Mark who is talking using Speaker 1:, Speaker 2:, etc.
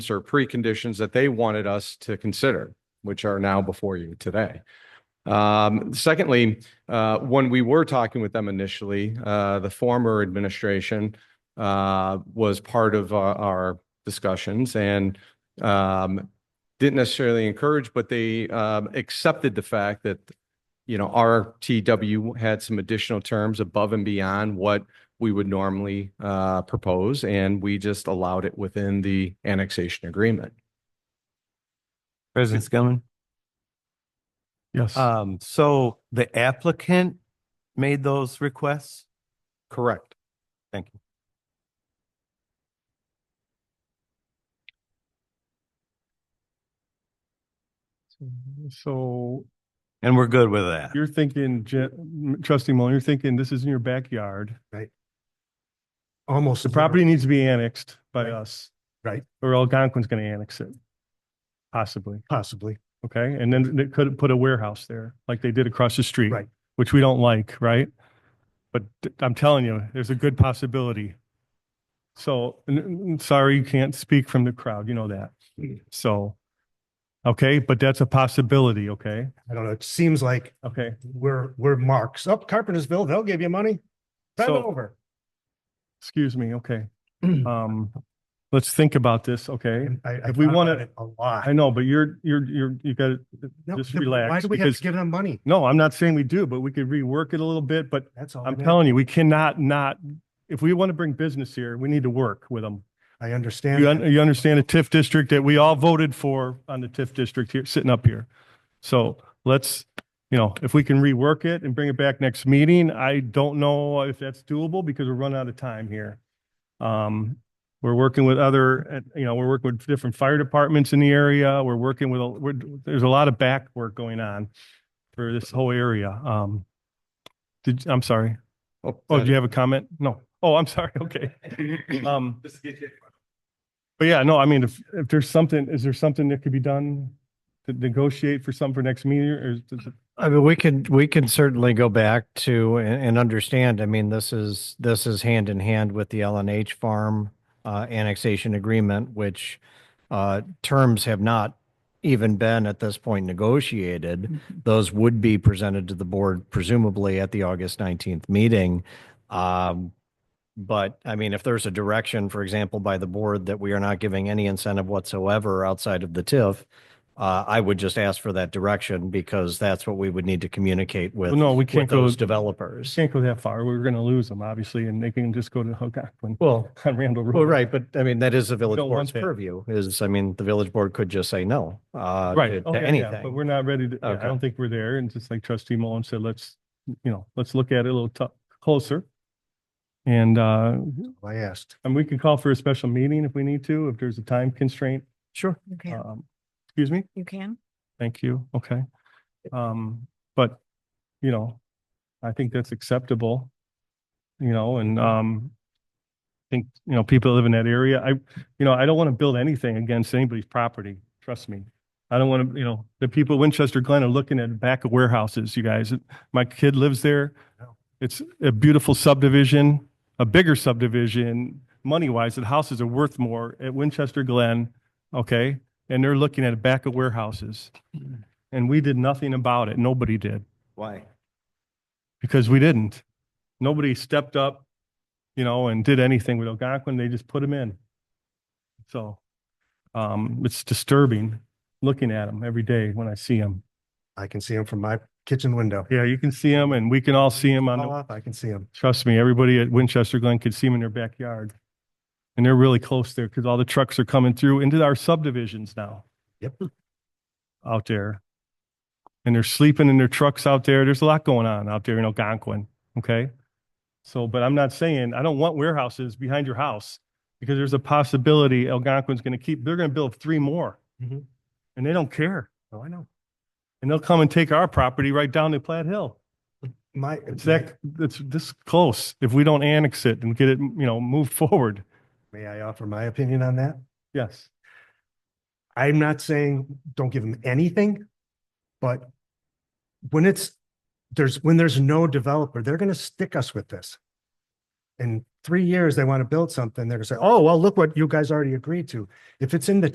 Speaker 1: or preconditions that they wanted us to consider, which are now before you today. Um, Secondly, uh, when we were talking with them initially, uh, the former administration uh, was part of our- our discussions and um, didn't necessarily encourage, but they um, accepted the fact that, you know, RTW had some additional terms above and beyond what we would normally uh, propose, and we just allowed it within the annexation agreement.
Speaker 2: President Skillman.
Speaker 3: Yes.
Speaker 4: Uh,
Speaker 2: Um, so the applicant made those requests?
Speaker 1: Correct.
Speaker 2: Thank you.
Speaker 3: So
Speaker 2: And we're good with that.
Speaker 3: you're thinking, Je- m- trustee Mullen, you're thinking this is in your backyard.
Speaker 4: Almost.
Speaker 3: The property needs to be annexed by
Speaker 4: Right.
Speaker 3: us.
Speaker 4: Right.
Speaker 3: Or Algonquin's going to annex it. Possibly.
Speaker 4: Possibly.
Speaker 3: Okay. And then they could put a warehouse there like they did across the street.
Speaker 4: Right.
Speaker 3: Which we don't like, right? But th- I'm telling you, there's a good possibility. So, n- n- sorry, you can't speak from the crowd. You know that.
Speaker 4: Hmm.
Speaker 3: So, okay, but that's a possibility. Okay.
Speaker 4: I don't know. It seems like
Speaker 3: Okay.
Speaker 4: we're, we're marks. Up Carpentersville, they'll give you money. Send it
Speaker 3: So-
Speaker 4: over.
Speaker 3: Excuse me, okay. Um, let's think about this, okay?
Speaker 4: And I, I
Speaker 3: if we
Speaker 4: thought
Speaker 3: wanna-
Speaker 4: about it A lot.
Speaker 3: I know, but you're, you're, you're, you got,
Speaker 4: No,
Speaker 3: just
Speaker 4: then Why
Speaker 3: relax,
Speaker 4: do we have
Speaker 3: because-
Speaker 4: to give them money?
Speaker 3: no, I'm not saying we do, but we could rework it a little bit, but
Speaker 4: That's all.
Speaker 3: I'm
Speaker 4: it is.
Speaker 3: telling you, we cannot not, if we want to bring business here, we need to work with them.
Speaker 4: I
Speaker 3: You, un-
Speaker 4: understand.
Speaker 3: you understand a TIF district that we all voted for on the TIF district here, sitting up here. So let's, you know, if we can rework it and bring it back next meeting, I don't know if that's doable because we're running out of time here. Um, we're working with other, uh, you know, we're working with different fire departments in the area. We're working with, a- we're, there's a lot of back work going on for this whole area. Um, did, I'm sorry. Oh, do you have a comment? No. Oh, I'm sorry. Okay. Um, but yeah, no, I mean, if, if there's something, is there something that could be done to negotiate for something for next meeting or is does it-
Speaker 5: I mean, we can, we can certainly go back to and, and understand, I mean, this is, this is hand in hand with the LNH farm uh, annexation agreement, which uh, terms have not even been at this point negotiated. Those would be presented to the board presumably at the August 19th meeting. Um, But I mean, if there's a direction, for example, by the board that we are not giving any incentive whatsoever outside of the TIF, uh, I would just ask for that direction because that's what we would need to communicate with,
Speaker 3: Well, no, we
Speaker 5: with
Speaker 3: can't go,
Speaker 5: those developers.
Speaker 3: can't go that far. We're going to lose them, obviously, and they can just go to Algonquin
Speaker 5: Well,
Speaker 3: on Randall Road.
Speaker 5: well, right, but I mean, that is the village
Speaker 3: don't want
Speaker 5: board's
Speaker 3: that.
Speaker 5: purview is, I mean, the village board could just say no, uh,
Speaker 3: Right.
Speaker 5: to- to
Speaker 3: Okay, yeah, But
Speaker 5: anything.
Speaker 3: we're not ready to, yeah, I
Speaker 5: Okay.
Speaker 3: don't think we're there. And just like trustee Mullen said, let's, you know, let's look at it a little tou- closer. And, uh,
Speaker 4: I asked.
Speaker 3: and we can call for a special meeting if we need to, if there's a time constraint.
Speaker 5: Sure.
Speaker 6: You can,
Speaker 3: Um, excuse me?
Speaker 6: you can.
Speaker 3: Thank you. Okay. Um, but, you know, I think that's acceptable. You know, and, um, I think, you know, people that live in that area. I, you know, I don't want to build anything against anybody's property. Trust me. I don't want to, you know, the people of Winchester Glen are looking at the back of warehouses, you guys. My kid lives there. It's a beautiful subdivision, a bigger subdivision, money wise, the houses are worth more at Winchester Glen. Okay. And they're looking at the back of warehouses. And we did nothing about it. Nobody did
Speaker 2: Why?
Speaker 3: because we didn't. Nobody stepped up, you know, and did anything with Algonquin. They just put them in. So um, it's disturbing looking at them every day when I see them.
Speaker 4: I can see them from my kitchen window.
Speaker 3: Yeah, you can see them and we can all see them on the
Speaker 4: Call up, I can see them.
Speaker 3: Trust me, everybody at Winchester Glen could see them in their backyard. And they're really close there because all the trucks are coming through into our subdivisions now.
Speaker 4: Yep.
Speaker 3: Out there. And they're sleeping in their trucks out there. There's a lot going on out there in Algonquin, okay? So, but I'm not saying, I don't want warehouses behind your house because there's a possibility Algonquin's going to keep, they're going to build three more.
Speaker 4: Mhm.
Speaker 3: And they don't care.
Speaker 4: Oh, I know.
Speaker 3: And they'll come and take our property right down to Platt Hill.
Speaker 4: My.
Speaker 3: It's that, it's this close. If we don't annex it and get it, you know, move forward.
Speaker 4: May I offer my opinion on that?
Speaker 3: Yes.
Speaker 4: I'm not saying don't give them anything, but when it's, there's, when there's no developer, they're gonna stick us with this. In three years, they want to build something, they're gonna say, oh, well, look what you guys already agreed to. If it's in the